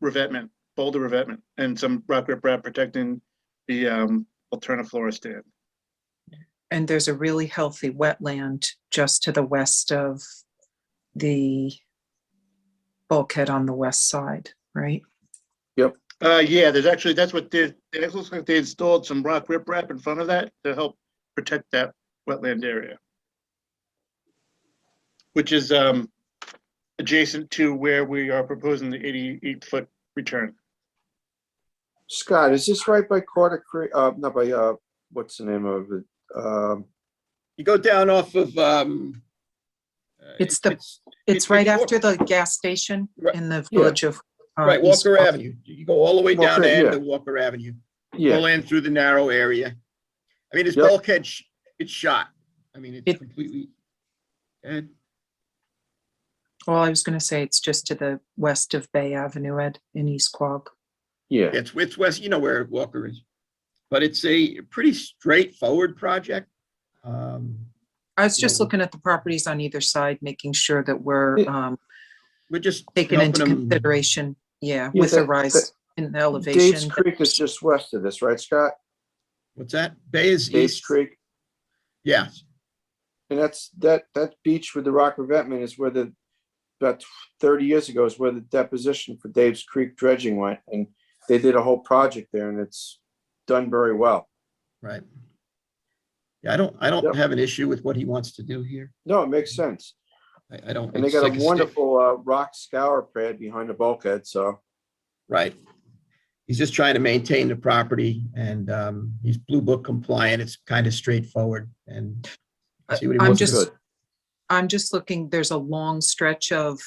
revetment, boulder revetment, and some rock riprap protecting the um, alterniflora stand. And there's a really healthy wetland just to the west of the bulkhead on the west side, right? Uh, yeah, there's actually, that's what they, it looks like they installed some rock riprap in front of that to help protect that wetland area. Which is, um, adjacent to where we are proposing the eighty-eight foot return. Scott, is this right by Carter Creek, uh, not by, uh, what's the name of it? Um, You go down off of, um. uh, It's the- it's It's right Walker- after the gas station Right, in the yeah. village of. uh, Right, East Walker Avenue. You go all the way down Walker, to end yeah. of Walker Avenue, Yeah, pull in through the narrow area. I mean, it's Yep. bulkhead, sh- it's shot. I mean, it's It- completely. And Well, I was gonna say it's just to the west of Bay Avenue, Ed, in East Quogue. yeah, it's, it's west, you know where Walker is. But it's a pretty straightforward project. Um, I was just Yeah. looking at the properties on either side, making sure that we're Yeah. um, we're just taking helping into them. consideration, yeah, Yeah, with the that- that- rise in the Dave's elevation. Creek is just west of this, right, Scott? What's that? Bay is Dave's east. Creek, Yeah, and that's, that, that beach with the rock revetment is where the, about thirty years ago is where the deposition for Dave's Creek dredging went, and they did a whole project there, and it's done very well. right. Yeah, I don't, I Yep. don't have an issue with what he wants to do here. No, it makes sense, I, I don't. and they it's got like a sta- wonderful, uh, rock scour pad behind the bulkhead, so. Right. He's just trying to maintain the property and um, he's Blue Book compliant. It's kind of straightforward and I- see what he I'm wants to just- do. Good. I'm just looking, there's a long stretch of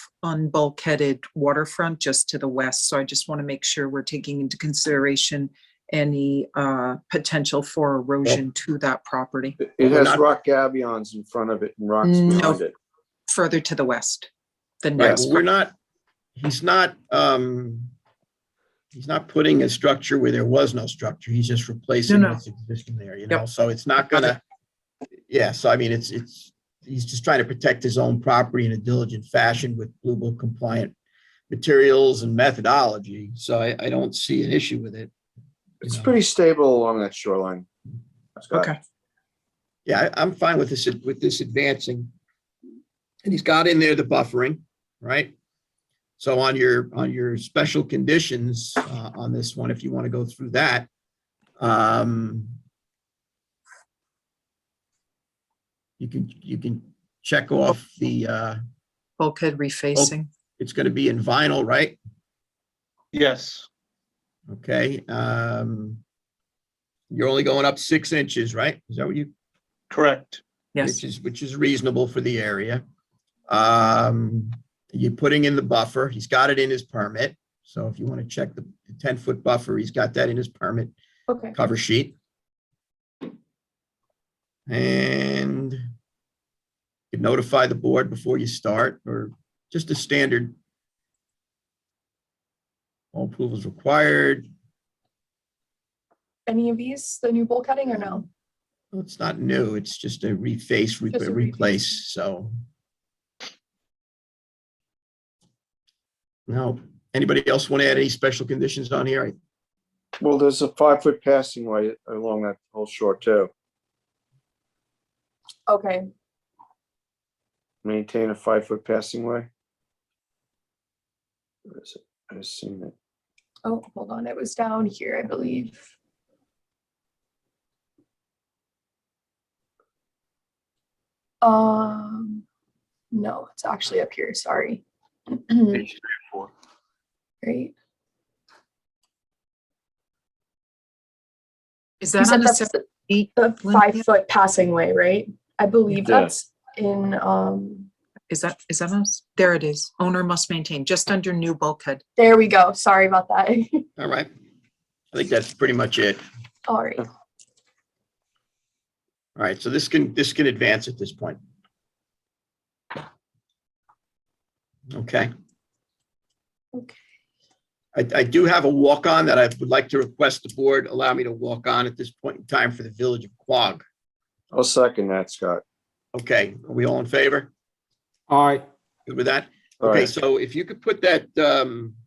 unbulkheaded waterfront just to the west, so I just want to make sure we're taking into consideration any uh, potential for erosion to that property It- Well, It we're has not- rock gabions in front of it and rocks No. behind it. further to the west than Right, next. well, we're not, he's not, um, he's not putting a structure where there was no structure. He's just replacing no. what's existing there, you Yep. know, so it's not gonna, yeah, so I mean, it's, it's, he's just trying to protect his own property in a diligent fashion with Blue Book compliant materials and methodology. So I, I don't see an issue with it. you It's know. pretty stable along that shoreline. Scott. Okay. Yeah, I- I'm fine with this, with this advancing. And he's got in there the buffering, right? So on your, on your special conditions uh, on this one, if you want to go through that. um, You can, you can check off the, uh, Bulkhead refacing. it's going to be in vinyl, right? Yes, Okay. um, You're only going up six inches, right? Is that what you, correct. Yes, which is, which is reasonable for the area. Um, you're putting in the buffer, he's got it in his permit, so if you want to check the ten-foot buffer, he's got that in his permit Okay, cover sheet. And you notify the board before you start, or just a standard. All approvals required, any of these, the new bowl cutting or no? Well, it's not new, it's just a reface, re- Just a reface. replace, so. Now, anybody else want to add any special conditions on here? I- Well, there's a five-foot passing way along that whole shore too. Okay, Maintain a five-foot passing way. Where is it? I've seen it. oh, hold on, it was down here, I believe. Um, no, it's actually up here, sorry. Page four. Great. is You that said on the that's separate the- sheet? the Lynn? five foot passing way, right? I believe Yeah. that's in, um, Is that, is that us? There it is. Owner must maintain, just under new bulkhead. there we go, sorry about that. All right. I think that's pretty much it. All right, All right, so this can, this can advance at this point. Okay. Okay. I, I do have a walk-on that I would like to request the board allow me to walk on at this point in time for the Village of Quogue. I'll second that, Scott. Okay, are we all in favor? All right, Good with that? All Okay, right. so if you could put that, um,